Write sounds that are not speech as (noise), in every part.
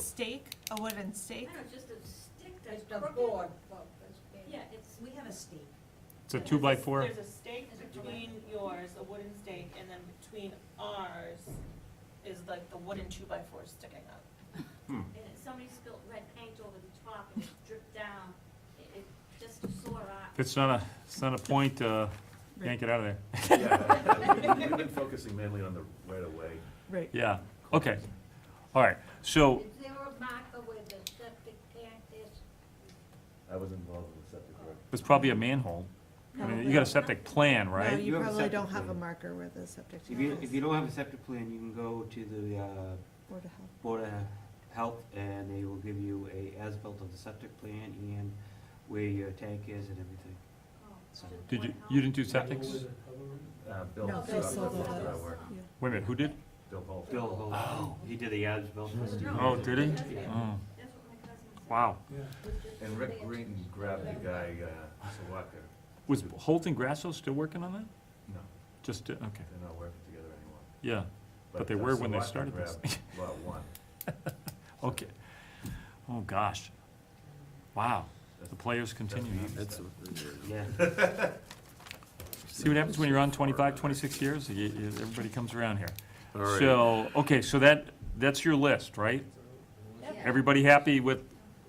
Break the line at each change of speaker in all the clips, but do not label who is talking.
stake, a wooden stake?
it's just a stick that's
It's the
crooked.
board, well, it's big.
Yeah, it's,
We have a stake.
It's a two by four,
There's a stake between yours, a wooden stake, and then between ours is like the wooden two by four sticking up.
and it- somebody spilled red paint over the top and it dripped down. It, it just a sore eye.
it's not a, it's not a point, uh, yank it out of there, (laughs)
Yeah, We've been focusing mainly on the right of way.
Right.
yeah, okay, all right, so,
Is there a marker where the septic tank is?
I was involved in the septic work.
it's probably a manhole. I mean, you got a septic plan,
No,
right?
you
You have a
probably
septic
don't have a
plan.
marker where the septic
If you,
tank
if
is,
you don't have a septic plan, you can go to the uh,
Board of Health.
Board of Health, and they will give you a as-built of the septic plan and where your tank is and everything.
Oh, it's
So-
just
Did you,
one
you
hole.
didn't do septics?
Uh, Bill,
No,
Bill,
Bill sold it. Yeah.
Wait a minute, who did?
Bill Holt.
Bill,
Oh,
Holt, he did the as-built.
Oh, did he? Oh,
That's what my cousin said.
wow.
And Rick Green grabbed the guy, uh, Sawaka.
Was Holt and Grasso still working on that?
No,
Just, uh, okay,
they're not working together anymore.
yeah, But they
uh,
were when they
Sawaka
started this
grabbed Lot one.
okay. Oh, gosh. Wow, the players continue.
That's
Yeah,
See what happens when you're on 25, 26 years? You- you- Everybody comes around here. So, okay, so that, that's your list, right? Everybody happy with,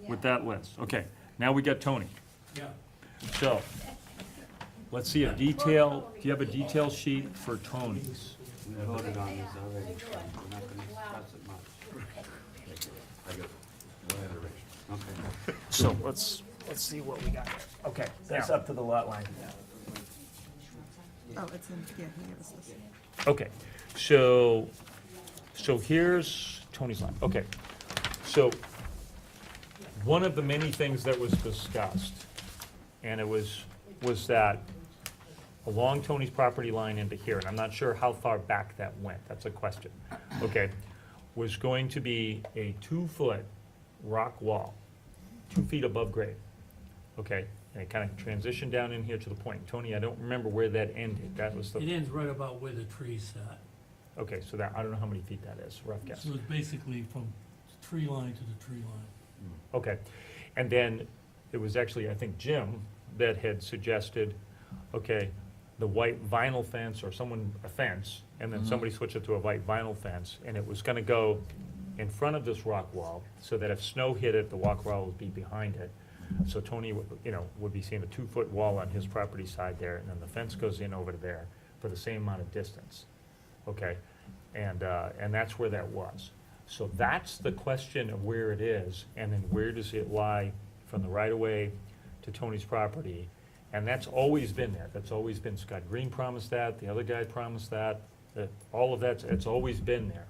with that list? Okay, now we got Tony.
Yeah.
So, let's see a detail, do you have a detail sheet for Tony's?
we voted on this already, so we're not gonna discuss it much.
I got one iteration.
Okay.
So let's,
Let's see what we got. Okay,
that's
up to the lot line.
Oh, it's in, yeah, he gave us this.
Okay, so, so here's Tony's line, okay. So, one of the many things that was discussed, and it was, was that along Tony's property line into here, and I'm not sure how far back that went, that's a question, okay, was going to be a two-foot rock wall, two feet above grade, okay? And it kind of transitioned down in here to the point. Tony, I don't remember where that ended, that was the
It ends right about where the tree sat.
Okay, so that, I don't know how many feet that is, rough guess.
So it's basically from tree line to the tree line.
Okay. And then it was actually, I think, Jim that had suggested, okay, the white vinyl fence or someone, a fence, and then somebody switched it to a white vinyl fence, and it was gonna go in front of this rock wall, so that if snow hit it, the walk wall would be behind it. So Tony, would- you know, would be seeing a two-foot wall on his property side there, and then the fence goes in over to there for the same amount of distance. Okay, and, uh, and that's where that was. So that's the question of where it is, and then where does it lie from the right-of-way to Tony's property? And that's always been there, that's always been, Scott Green promised that, the other guy promised that, that, all of that's, it's always been there.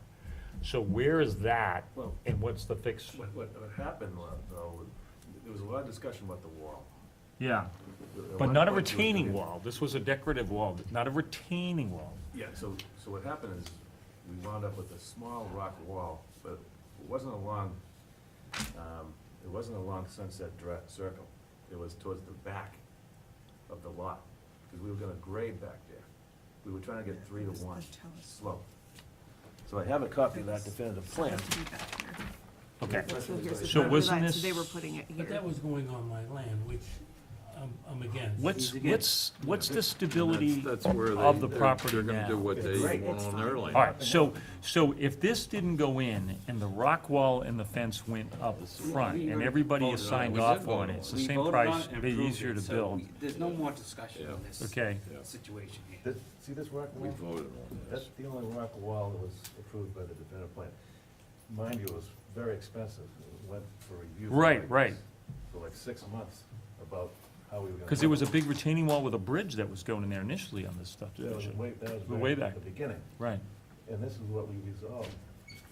So where is that,
Well-
and what's the fix?
What, what, what happened was, though, there was a lot of discussion about the wall.
Yeah. But not a retaining wall, this was a decorative wall, not a retaining wall.
Yeah, so, so what happened is, we wound up with a small rock wall, but it wasn't along, um, it wasn't along Sunset Dri- Circle. It was towards the back of the lot, because we were gonna grade back there. We were trying to get three to
It's the
one
tower.
slope. So I have a copy of that definitive plan.
Be back here.
Okay,
So here's the
So
property
wasn't
line, so
this-
they were putting it
But that
here.
was going on my land, which I'm, I'm against.
what's, what's, what's the stability
That's where they.
of the
they're-
property
They're gonna
now?
do what
It's
they
right,
want
it's
on
fine.
their land.
All right, so, so if this didn't go in, and the rock wall and the fence went up front, and everybody is signed
We did
off
vote
on
on
it,
it.
it's the
We
same
voted on
price,
it and
it'd be
approved
easier
it,
to
so
build,
we- There's no more discussion on
Yeah.
this
okay?
situation here.
This- See this rock
We
wall?
voted on this.
That's the only rock wall that was approved by the definitive plan. Mind you, it was very expensive. It went for review. for
Right,
like-
right.
For like six months about how we were gonna.
Because there was a big retaining wall with a bridge that was going in there initially on this stuff,
That was way, that was.
The way
back
back.
at The beginning.
right?
And this is what we resolved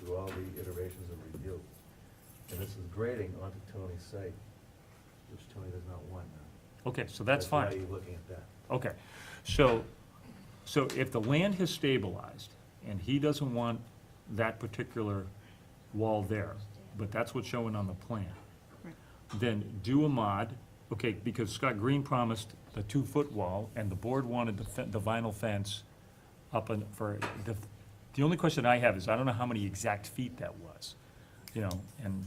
through all the iterations of review. And this is grading onto Tony's site, which Tony does not want now.
Okay, so that's
why
fine,
you're looking at that.
okay. So, so if the land has stabilized, and he doesn't want that particular wall there, but that's what's showing on the plan,
Right.
then do a mod, okay, because Scott Green promised the two-foot wall, and the board wanted the fe- the vinyl fence up and for, the, the only question I have is, I don't know how many exact feet that was. you know, and